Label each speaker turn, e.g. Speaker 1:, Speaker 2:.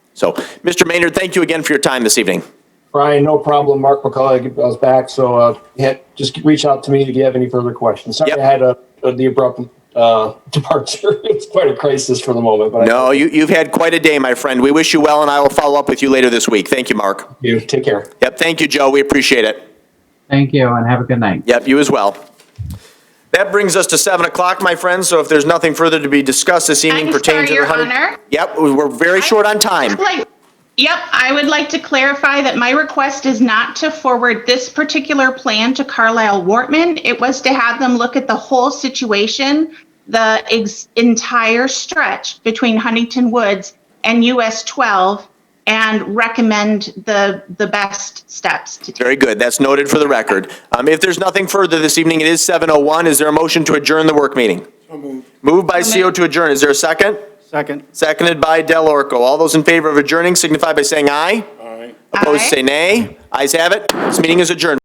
Speaker 1: So, Mr. Maynard, thank you again for your time this evening.
Speaker 2: Brian, no problem. Mark McCullough was back, so uh, yeah, just reach out to me if you have any further questions. Sorry,
Speaker 1: Yep.
Speaker 2: I had a, a the abrupt uh, departure. it's quite a crisis for the moment, but I
Speaker 1: No, you, you've had quite a day, my friend. We wish you well, and I will follow up with you later this week. Thank you, Mark.
Speaker 2: you take care.
Speaker 1: Yep, thank you, Joe. We appreciate it.
Speaker 3: Thank you and have a good night.
Speaker 1: Yep, you as well. That brings us to 7 o'clock, my friends, so if there's nothing further to be discussed this evening
Speaker 4: I'm
Speaker 1: pertaining
Speaker 4: sorry,
Speaker 1: to the
Speaker 4: Your
Speaker 1: 100...
Speaker 4: Honor.
Speaker 1: Yep, we- we're very short on time.
Speaker 4: Like, yep, I would like to clarify that my request is not to forward this particular plan to Carlisle Wortman. It was to have them look at the whole situation, the ex- entire stretch between Huntington Woods and US 12 and recommend the, the best steps to take.
Speaker 1: Very good, that's noted for the record. Um, If there's nothing further this evening, it is 7:01, is there a motion to adjourn the work meeting? Moved by CO to adjourn, is there a second?
Speaker 5: Second.
Speaker 1: Seconded by Del Orco. All those in favor of adjourning signify by saying aye. Opposed,
Speaker 4: Aye.
Speaker 1: say nay. Ayes have it, this meeting is adjourned.